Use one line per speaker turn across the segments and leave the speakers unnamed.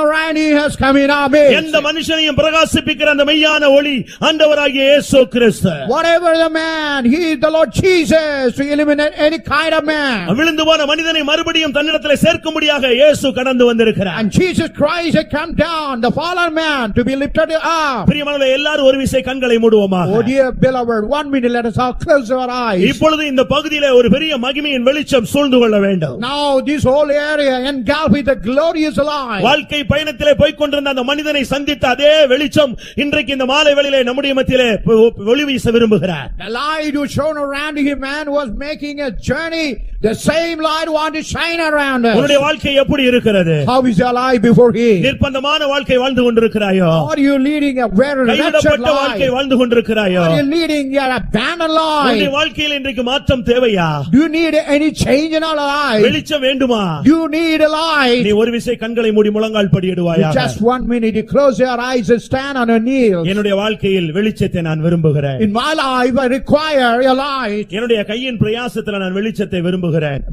and he has come in our midst.
எந்த மனுஷனையும் பிரகாசிப்பிக்கிற அந்த மெய்யான ஒளி ஆண்டவராகிய இயேசு கிறிஸ்து
Whatever the man, he is the Lord Jesus to eliminate any kind of man.
விழுந்து போன மனிதனை மறுபடியும் தன்னிடத்தில் சேர்க்கும்படியாக இயேசு கடந்து வந்திருக்கிறார்
And Jesus Christ had come down, the fallen man, to be lifted up.
பிரியமானவர்களே எல்லாரும் ஒரு விசை கண்களை
Oh
மூடுவோமாக
dear beloved, one minute, let us all close our eyes.
இப்பொழுது இந்த பகுதியிலே ஒரு பெரிய மகிமையின் வெளிச்சம் சூழ்ந்து கொள்ள வேண்டும்
Now this whole area engulfed with the glorious light.
வாழ்க்கை பயணத்திலே போய்க் கொண்டிருந்த அந்த மனிதனை சந்தித்த அதே வெளிச்சம் இன்றைக்கு இந்த மாலை வேளையிலே நம்முடைய மத்தியிலே ஒ- ஒளி வீச விரும்புகிறார்
The light was shone around him and was making a journey. The same light wanted to shine around us.
உன்னுடைய வாழ்க்கை எப்படி இருக்கிறது
How is your life before him?
நிர்பந்தமான வாழ்க்கை வாழ்ந்து கொண்டிருக்கிறாயோ
Are you leading a very wretched
கைவிடப்பட்ட வாழ்க்கை
life?
வாழ்ந்து கொண்டிருக்கிறாயோ
Are you leading your abandoned
உன்னுடைய
life?
வாழ்க்கையில் இன்றைக்கு மாற்றம் தேவையா
Do you need any change in our life?
வெளிச்சம் வேண்டுமா
You need a light.
நீ ஒரு விசை கண்களை மூடி முழங்கால்
With
படியிடுவாயா
just one minute, you close your eyes and stand on your knees.
என்னுடைய வாழ்க்கையில் வெளிச்சத்தை நான் விரும்புகிறேன்
In my life, I require a light.
என்னுடைய கையின் பிரயாசத்துல நான் வெளிச்சத்தை விரும்புகிறேன்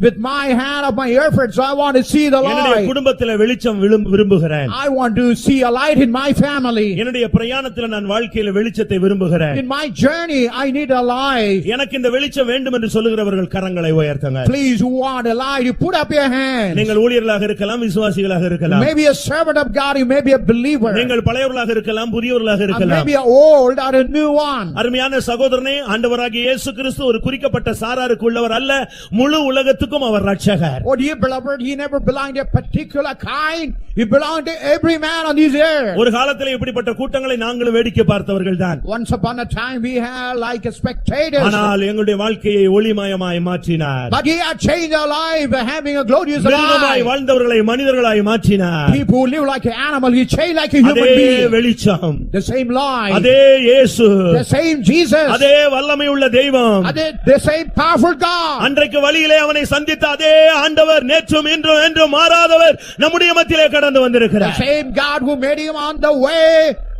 With my hand of my efforts, I want to see the
என்னுடைய
light.
குடும்பத்தில வெளிச்சம் விழும்- விரும்புகிறேன்
I want to see a light in my family.
என்னுடைய பிரயாணத்துல நான் வாழ்க்கையில வெளிச்சத்தை விரும்புகிறேன்
In my journey, I need a light.
எனக்கு இந்த வெளிச்சம் வேண்டும் என்று சொல்லுகிறவர்கள் கரங்களை உயர்த்துங்க
Please, who want a light, you put up your hand.
நீங்கள் ஊழியர்களாக இருக்கலாம் விசுவாசிகளாக இருக்கலாம்
Maybe a servant of God, you may be a believer.
நீங்கள் பழையவர்களாக இருக்கலாம் புதியவர்களாக
Or
இருக்கலாம்
maybe an old or a new one.
அருமையான சகோதரனே ஆண்டவராகிய இயேசு கிறிஸ்து ஒரு குறிக்கப்பட்ட சாராருக்கு உள்ளவர் அல்ல முழு உலகத்துக்கும் அவர் ரட்சகர்
Oh dear beloved, he never belonged to a particular kind. He belonged to every man on this earth.
ஒரு காலத்தில் இப்படிப்பட்ட கூட்டங்களை நாங்களும் வேடிக்கை பார்த்தவர்கள் தான்
Once upon a time, we had like a spectators.
ஆனால் எங்களுடைய வாழ்க்கையை ஒளிமயமாய் மாற்றினார்
But he had changed our life by having a glorious
மிருகமாய்
life.
வாழ்ந்தவர்களை மனிதர்களாய் மாற்றினார்
People who live like an animal, he changed like a human
அதே
being.
வெளிச்சம்
The same life,
அதே இயேசு
the same Jesus,
அதே வல்லமை உள்ள தெய்வம்
the the same powerful God.
அன்றைக்கு வழியிலே அவனை சந்தித்த அதே ஆண்டவர் நேற்றும் இன்றும் என்றும் மாறாதவர் நம்முடைய மத்தியிலே கடந்து
The
வந்திருக்கிறார்
same God who made him on the way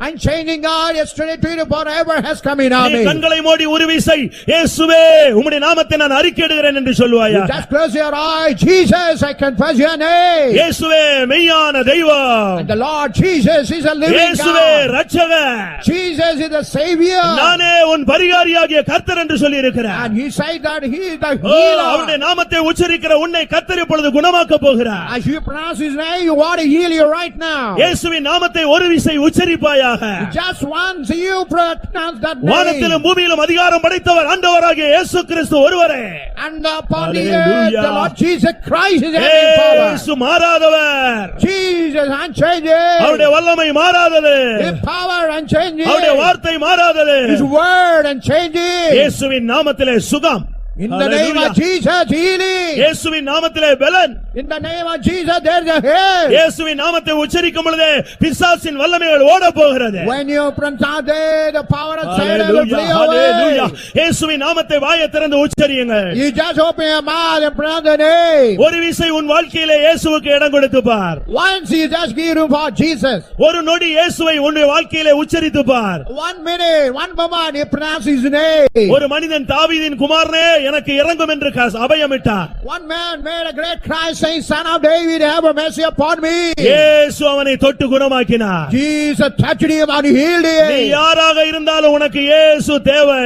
and changing God yesterday, today, forever has come in our
நீ
midst.
கண்களை மூடி உருவிசை இயேசுவே உம்முடைய நாமத்தை நான் அறிக்கையிடுகிறேன் என்று சொல்லுவாயா
Just close your eyes. Jesus, I confess your name.
இயேசுவே மெய்யான தெய்வம்
And the Lord Jesus is a living
இயேசுவே
God.
ரட்சகர்
Jesus is the Savior.
நானே உன் பரிகாரியாகிய கர்த்தர் என்று சொல்லி இருக்கிறார்
And he said that he is the
அவருடைய
healer.
நாமத்தை உச்சரிக்கிற உன்னை கர்த்தர் இப்பொழுது குணமாக்க போகிறார்
As you pronounce his name, you want to heal you right now.
இயேசுவின் நாமத்தை ஒரு விசை உச்சரிப்பாயாக
Just once you pronounce that
வானத்திலும்
name.
பூமியிலும் அதிகாரம் படைத்தவர் ஆண்டவராகிய இயேசு கிறிஸ்து ஒருவரே
And upon the earth,
Hallelujah.
the Lord Jesus Christ is having power.
இயேசு மாறாதவர்
Jesus
அவருடைய
unchanges.
வல்லமை மாறாதது
His power
அவருடைய
unchanges.
வார்த்தை மாறாதது
His word unchanges.
இயேசுவின் நாமத்திலே சுகம்
In the name
Hallelujah.
of Jesus, healing.
இயேசுவின் நாமத்திலே பலன்
In the name of Jesus, there is a head.
இயேசுவின் நாமத்தை உச்சரிக்கும் பொழுதே பிசாசின் வல்லமைகள் ஓட போகிறது
When you pronounce it, the power of Satan will
Hallelujah,
flee
hallelujah.
away.
இயேசுவின் நாமத்தை வாயை திறந்து உச்சரியுங்கள்
You just open your mouth and pronounce the name.
ஒரு விசை உன் வாழ்க்கையிலே இயேசுவுக்கு இடம் கொடுத்து பார்
Once you just give room for Jesus.
ஒரு நொடி இயேசுவை உன்னுடைய வாழ்க்கையிலே உச்சரித்து பார்
One minute, one moment, you pronounce his name.
ஒரு மனிதன் தாவீதின் குமாரனே எனக்கு இறங்கும் என்று க- அபயமிட்டார்
One man made a great cry saying, Son of David, have mercy upon me.
இயேசு அவனை தொட்டு குணமாக்கினார்
Jesus touched him and healed
நீ
him.
யாராக இருந்தாலும் உனக்கு இயேசு தேவை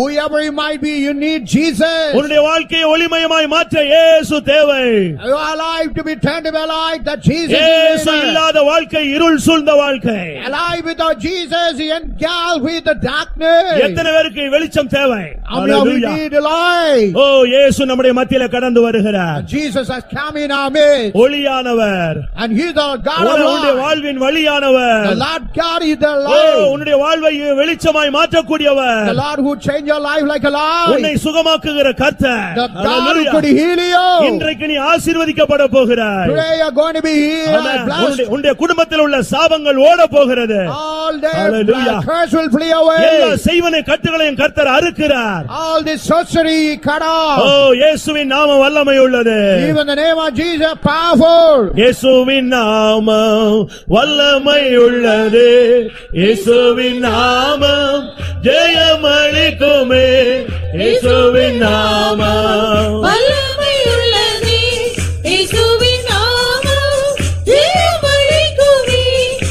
Whoever he might be, you need Jesus.
உன்னுடைய வாழ்க்கையை ஒளிமயமாய் மாற்ற இயேசு தேவை
Your life to be turned to be alive that Jesus is
இயேசு
in us.
இல்லாத வாழ்க்கை இருள் சூழ்ந்த வாழ்க்கை
Alive without Jesus, he engulfed with the darkness.
எத்தனை பேருக்கு வெளிச்சம் தேவை
How many of you
Hallelujah.
need life?
ஓ இயேசு நம்முடைய மத்தியில கடந்து வருகிறார்
Jesus has come in our midst
ஒளியானவர்
and he's the God
உன்னுடைய உன்னுடைய
of life.
வாழ்வின்
The
வழியானவர்
Lord God is the
O
light.
உன்னுடைய வாழ்வை வெளிச்சமாய்
The
மாற்றக்கூடியவர்
Lord who changed your life like a
உன்னை
light.
சுகமாக்குகிற கர்த்தர்
The God who
Hallelujah.
could heal you.
இன்றைக்கு நீ ஆசீர்வதிக்கப்பட போகிறாய்
Today you're going to be healed.
Amen.
Blessed.
உன்னுடைய- உன்னுடைய குடும்பத்தில் உள்ள சாபங்கள் ஓட போகிறது
All the
Hallelujah.
curse will flee
எல்லா
away.
செய்வனை கட்டுகளையும் கர்த்தர் அறுக்கிறார்
All this sorcery cut
O
off.
இயேசுவின் நாமம் வல்லமை உள்ளது
Even the name of Jesus powerful.
இயேசுவின் நாமம் வல்லமை உள்ளது இயேசுவின் நாமம் ஜெயமளிக்குமே இயேசுவின் நாமம்